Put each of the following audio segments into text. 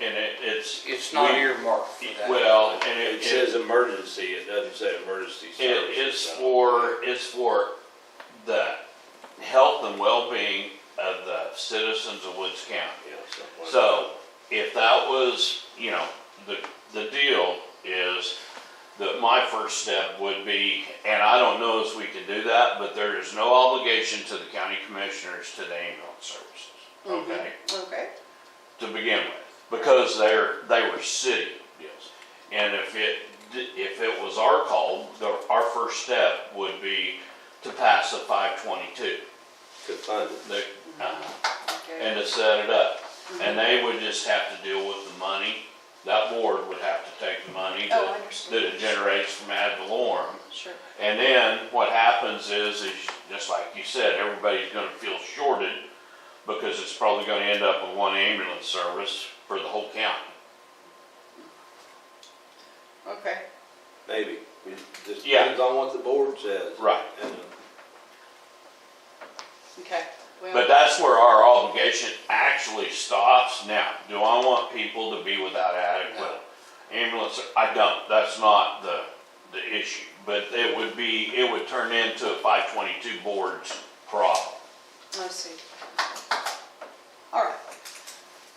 and it, it's. It's not we- earmarked for that. Well, and It it, says it, emergency, it doesn't say emergency it- services. it's for, it's for the health and well-being of the citizens of Woods County. Yeah, something like So, if that was, you know, the, the deal is that my first step would be, and I don't know if we can do that, but there is no obligation to the county commissioners to the ambulance services, okay? Okay. To begin with, because they're, they were city deals. And if it, d- if it was our call, the, our first step would be to pass the five twenty-two, that. Could find it. the, uh, Okay. and to set it up. And they would just have to deal with the money, that board would have to take the money Oh, I that, that understand. it generates from ad valorem. Sure. And then what happens is, is just like you said, everybody's gonna feel shorted because it's probably gonna end up with one ambulance service for the whole county. Okay. Maybe, it just Yeah. depends on what the board says. Right. And, uh, Okay. But Well, that's where our obligation actually stops. Now, do I want people to be without adequate ambulance? I don't. That's not the, the issue. But it would be, it would turn into a five twenty-two board's problem. I see. All right.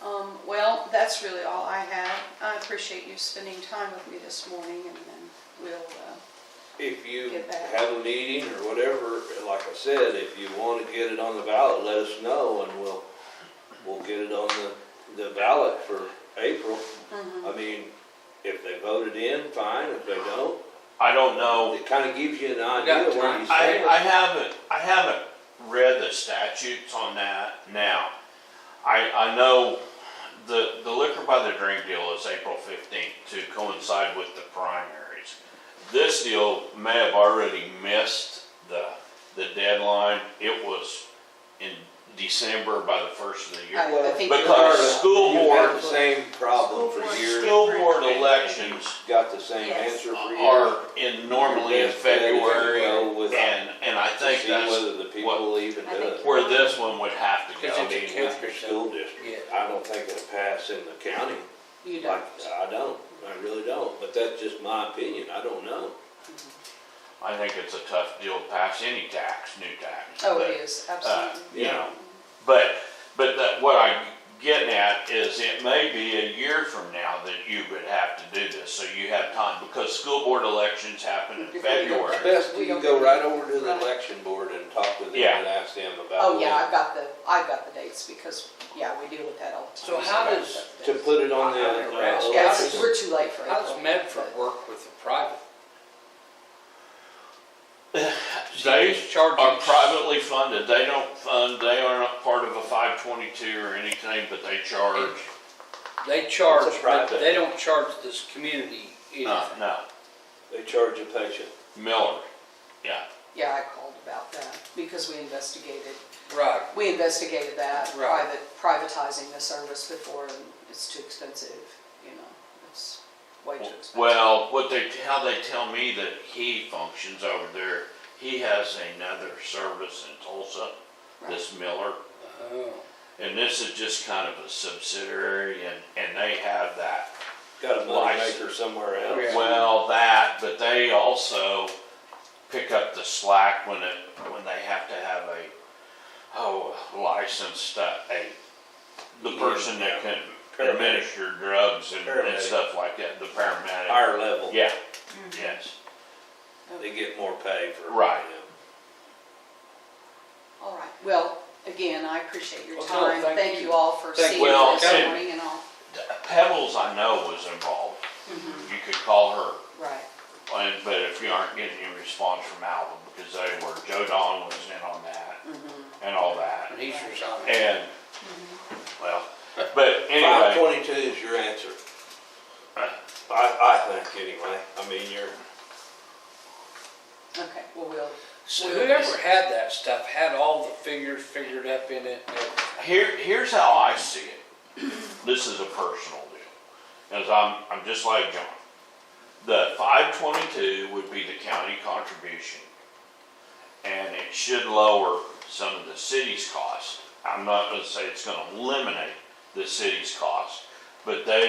Um, well, that's really all I have. I appreciate you spending time with me this morning and then we'll, uh, If you Get back. have a meeting or whatever, like I said, if you wanna get it on the ballot, let us know and we'll, we'll get it on the, the ballot for April. Mm-hmm. I mean, if they voted in, fine, if they don't, I don't know. it kinda gives you an We got idea where time. you I, stand. I haven't, I haven't read the statutes on that now. I, I know the, the liquor by the drink deal is April fifteenth to coincide with the primaries. This deal may have already missed the, the deadline. It was in December by the first of the year. I- I think. Because- Florida, school you've had board- the Same problem School for board. years, School board elections got the same Yes. answer Uh, for years. are in, normally in Best bet is to February, go with- and, and I To think see that's whether the people even do I think it. where this one would have to go. It's I a mean, with your school district, Yeah. I don't think it'll pass in the county. You don't. Like, I don't, I really don't, but that's just my opinion, I don't know. I think it's a tough deal to pass any tax, new tax. Oh, but, it is, uh, absolutely. You know, but, but that, what I'm getting at is it may be a year from now that you would have to do this, so you have time, because school board elections happen in February. Best, We you don't- go right over to the Right. election board and talk with them Yeah. and ask them about. Oh, yeah, what- I've got the, I've got the dates because, yeah, we deal with that all the time. So how does- To put it on the, Yeah, uh, it's- Yes, election. we're too late for How does April. Medford work with the private? They He's are charging- privately funded, they don't fund, they are not part of a five twenty-two or anything, but they charge, They charge, It's a but private. they don't charge this community no, anything. no, they charge a patient. Miller, yeah. Yeah, I called about that because we investigated, Right, we investigated that, Right. private, privatizing the service before and it's too expensive, you know, it's way too expensive. Well, what they, how they tell me that he functions over there, he has another service in Tulsa, this Miller. oh, And this is just kind of a subsidiary and, and they have that. Got a License. moneymaker somewhere Yeah. else. Well, that, but they also pick up the slack when it, when they have to have a, oh, licensed, uh, a, the person that can Paramedic. administer drugs and, and Paramedic. stuff like that, the paramedic. Higher level, Yeah, yes. they get more pay for. Right. them. All right, well, again, I appreciate your Well, no, time. thank Thank you. you all for Thank seeing you. Well, this and- morning and all. Pebbles, I know, was involved. You could call her, Right, and, but if you aren't getting any response from Alvin, because they were, Joe Don was in on that and all that. and he's resigning. And, well, but Five anyway, twenty-two is your answer. I, I think anyway, I mean, you're, okay, well, we'll, So whoever had that stuff had all the figures figured up in it. and everything. here, here's how I see it. This is a personal deal, as I'm, I'm just like John. The five twenty-two would be the county contribution, and it should lower some of the city's costs. I'm not gonna say it's gonna eliminate the city's cost, But they